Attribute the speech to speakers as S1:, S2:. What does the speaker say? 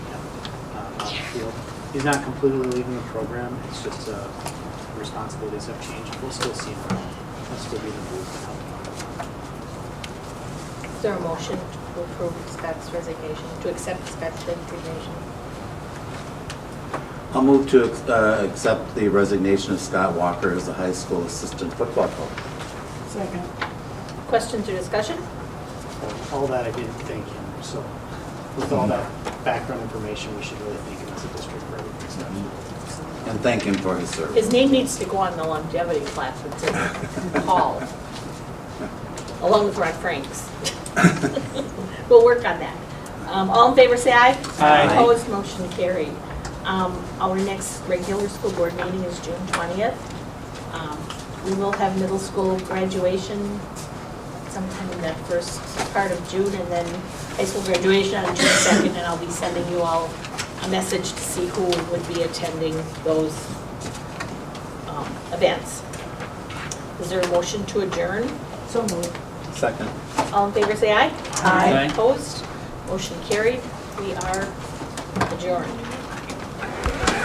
S1: across the uh, field. He's not completely leaving the program, it's just uh, responsibilities have changed. We'll still see him around. He'll still be in the booth and help him out.
S2: Is there a motion to approve Scott's resignation, to accept Scott's resignation?
S3: I'll move to uh, accept the resignation of Scott Walker as the high school assistant football coach.
S4: Second.
S2: Questions or discussion?
S1: All that, I didn't thank him, so with all that background information, we should really thank him as a district for everything he's done.
S3: And thank him for his service.
S2: His name needs to go on the longevity plaque that's in the hall, along with Rod Franks. We'll work on that. Um, All in favor, say aye.
S1: Aye.
S2: Opposed, motion carried. Um, Our next regular school board meeting is June 20th. Um, We will have middle school graduation sometime in that first part of June, and then high school graduation on June 2nd, and I'll be sending you all a message to see who would be attending those um, events. Is there a motion to adjourn?
S4: So moved.
S3: Second.
S2: All in favor, say aye.
S1: Aye.
S2: Opposed? Motion carried. We are adjourned.